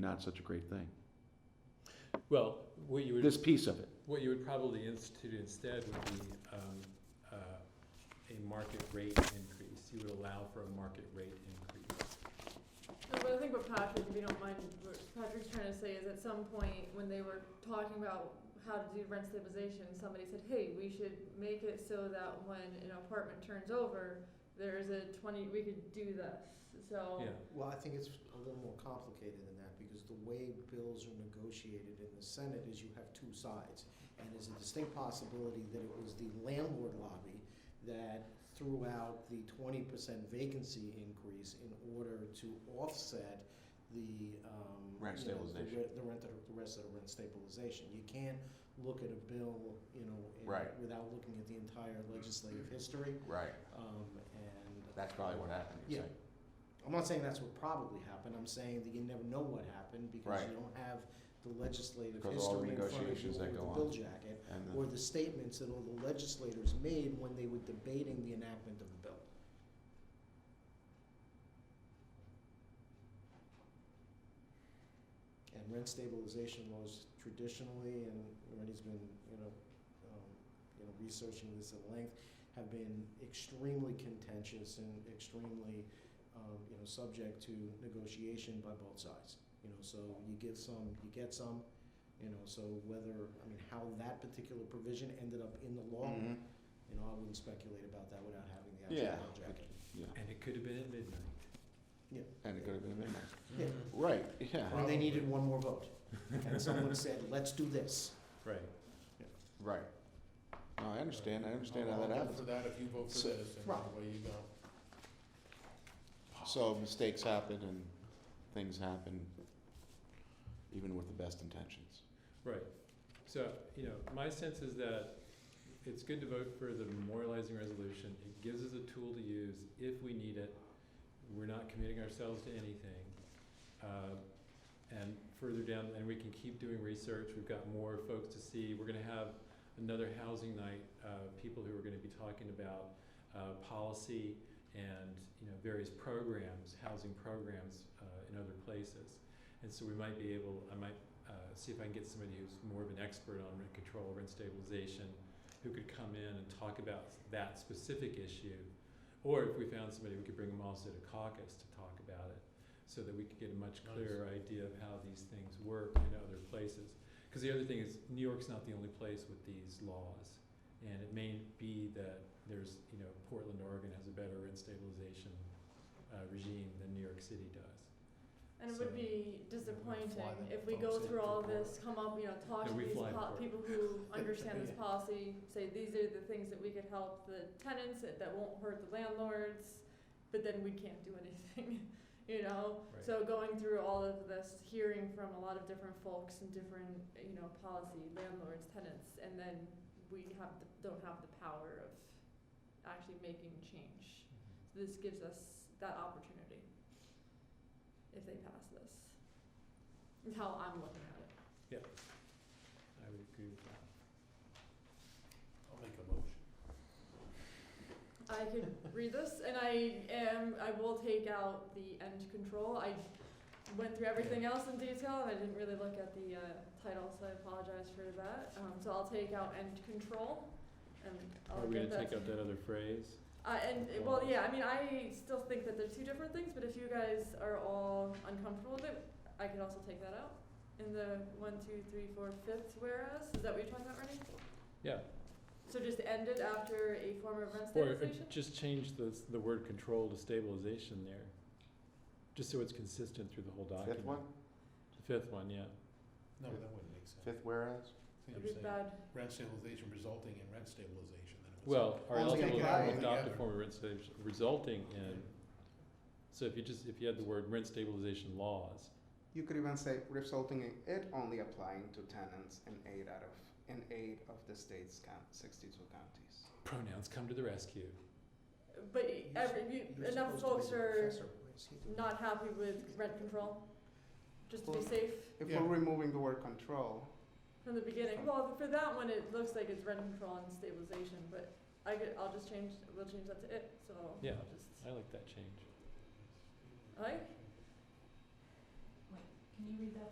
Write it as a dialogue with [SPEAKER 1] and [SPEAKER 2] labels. [SPEAKER 1] not such a great thing.
[SPEAKER 2] Well, what you would,
[SPEAKER 1] This piece of it,
[SPEAKER 2] what you would probably institute instead would be, um, uh, a market rate increase. You would allow for a market rate increase.
[SPEAKER 3] No, but I think what Patrick, if you don't mind, what Patrick's trying to say is at some point, when they were talking about how to do rent stabilization, somebody said, hey, we should make it so that when an apartment turns over, there's a twenty, we could do this, so.
[SPEAKER 2] Yeah,
[SPEAKER 4] Well, I think it's a little more complicated than that, because the way bills are negotiated in the Senate is you have two sides. And there's a distinct possibility that it was the landlord lobby that threw out the twenty percent vacancy increase in order to offset the, um.
[SPEAKER 1] Rent
[SPEAKER 4] you know, the
[SPEAKER 1] stabilization.
[SPEAKER 4] re- The rent, the rest of the rent stabilization. You can't look at a bill, you know, in-
[SPEAKER 1] Right.
[SPEAKER 4] without looking at the entire legislative history,
[SPEAKER 1] right,
[SPEAKER 4] um, and.
[SPEAKER 1] that's probably what happened,
[SPEAKER 4] you're Yeah. saying. I'm not saying that's what probably happened, I'm saying that you never know what happened because
[SPEAKER 1] Right.
[SPEAKER 4] you don't have the legislative
[SPEAKER 1] Because all the
[SPEAKER 4] history in front of you
[SPEAKER 1] negotiations
[SPEAKER 4] or
[SPEAKER 1] that
[SPEAKER 4] the
[SPEAKER 1] go on.
[SPEAKER 4] bill jacket, or the statements that all the legislators made when they were debating the enactment of the bill. And rent stabilization laws traditionally, and Rennie's been, you know, um, you know, researching this at length, have been extremely contentious and extremely, um, you know, subject to negotiation by both sides. You know, so you give some, you get some, you know, so whether, I mean, how that particular provision ended up in the
[SPEAKER 1] Oh.
[SPEAKER 4] law,
[SPEAKER 1] Mm-hmm.
[SPEAKER 4] you know, I wouldn't speculate about that without having the
[SPEAKER 1] Yeah.
[SPEAKER 4] actual law jacket.
[SPEAKER 2] and it could have been at midnight.
[SPEAKER 1] And it could have been midnight.
[SPEAKER 4] Yeah.
[SPEAKER 1] Right, yeah,
[SPEAKER 4] And they needed one more vote, and someone said, let's do this.
[SPEAKER 2] Right.
[SPEAKER 1] right. No, I understand, I understand how that happens.
[SPEAKER 5] For that, if you vote
[SPEAKER 1] So-
[SPEAKER 5] for this, and
[SPEAKER 4] Right.
[SPEAKER 5] away you go.
[SPEAKER 1] So mistakes happen and things happen, even with the best intentions.
[SPEAKER 2] Right. So, you know, my sense is that it's good to vote for the memorializing resolution. It gives us a tool to use if we need it. We're not committing ourselves to anything. Uh, And further down, and we can keep doing research. We've got more folks to see. We're gonna have another housing night, uh, people who are gonna be talking about, uh, policy and, you know, various programs, housing programs, uh, in other places. And so we might be able, I might uh, see if I can get somebody who's more of an expert on rent control, rent stabilization, who could come in and talk about that specific issue. Or if we found somebody, we could bring them also to caucus to talk about it, so that we could get a much
[SPEAKER 5] Nice.
[SPEAKER 2] clearer idea of how these things work in other places. Because the other thing is, New York's not the only place with these laws. And it may be that there's, you know, Portland, Oregon has a better rent stabilization uh, regime than New York City does.
[SPEAKER 3] And it would
[SPEAKER 2] So-
[SPEAKER 3] be disappointing
[SPEAKER 5] Fly them
[SPEAKER 3] if we
[SPEAKER 5] folks
[SPEAKER 3] go
[SPEAKER 5] in
[SPEAKER 3] through
[SPEAKER 5] to
[SPEAKER 3] all
[SPEAKER 5] Portland.
[SPEAKER 3] this, come up, you know, talk
[SPEAKER 2] No,
[SPEAKER 3] to
[SPEAKER 2] we
[SPEAKER 3] these
[SPEAKER 2] fly to
[SPEAKER 3] po-
[SPEAKER 2] Portland.
[SPEAKER 3] people who understand this
[SPEAKER 5] Yeah.
[SPEAKER 3] policy, say these are the things that we could help the tenants, that that won't hurt the landlords, but then we can't do anything, you know?
[SPEAKER 2] Right.
[SPEAKER 3] So going through all of this, hearing from a lot of different folks and different, you know, policy, landlords, tenants, and then we have, the- don't have the power of actually making change. So This gives us that opportunity if they pass this. Is how I'm looking at it.
[SPEAKER 2] I would agree with that.
[SPEAKER 5] I'll make a motion.
[SPEAKER 3] I could read this and I am, I will take out the end control. I went through everything else in detail and I didn't really look at the uh, title, so I apologize for that. Um, so I'll take out end control and
[SPEAKER 2] Are
[SPEAKER 3] I'll
[SPEAKER 2] we gonna
[SPEAKER 3] get that.
[SPEAKER 2] take out that other phrase?
[SPEAKER 3] Uh, and, well, yeah, I mean, I still think that they're two different things, but if you guys are all uncomfortable with it, I could also take that out. In the one, two, three, four, fifth whereas, is that what you're talking about, Renee?
[SPEAKER 2] Yeah.
[SPEAKER 3] So just end it after a form of rent
[SPEAKER 2] Or uh,
[SPEAKER 3] stabilization?
[SPEAKER 2] just change the, s- the word control to stabilization there, just so it's consistent through the whole document.
[SPEAKER 1] Fifth one,
[SPEAKER 2] The fifth one, yeah.
[SPEAKER 5] No, that wouldn't make sense.
[SPEAKER 1] fifth whereas?
[SPEAKER 5] So
[SPEAKER 3] It'd
[SPEAKER 5] you're
[SPEAKER 3] be
[SPEAKER 5] saying
[SPEAKER 3] bad.
[SPEAKER 5] Rent stabilization resulting in rent stabilization, then it was.
[SPEAKER 2] Well, are
[SPEAKER 4] Well,
[SPEAKER 2] eligible
[SPEAKER 4] take
[SPEAKER 2] to
[SPEAKER 4] it out
[SPEAKER 2] adopt a
[SPEAKER 5] altogether.
[SPEAKER 2] form of rent stabilization resulting in, so if you just, if you had the word rent stabilization laws,
[SPEAKER 6] You could even say resulting in it only applying to tenants in eight out of in eight of the state's count, 62 counties.
[SPEAKER 2] pronouns come to the rescue.
[SPEAKER 3] But
[SPEAKER 4] You're
[SPEAKER 3] every,
[SPEAKER 4] s-
[SPEAKER 3] you-
[SPEAKER 4] you're
[SPEAKER 3] enough
[SPEAKER 4] supposed
[SPEAKER 3] folks
[SPEAKER 4] to be the
[SPEAKER 3] are
[SPEAKER 4] professor. Why is he doing
[SPEAKER 3] not happy with rent control, just to be
[SPEAKER 6] Well-
[SPEAKER 3] safe
[SPEAKER 6] If
[SPEAKER 5] Yeah.
[SPEAKER 6] we're removing the word control,
[SPEAKER 3] from the beginning. Well, for that one, it looks like it's rent control and stabilization, but I could, I'll just change, we'll change that to it, so I'll
[SPEAKER 2] Yeah.
[SPEAKER 3] just,
[SPEAKER 2] I like that change.
[SPEAKER 3] alright? Can you read that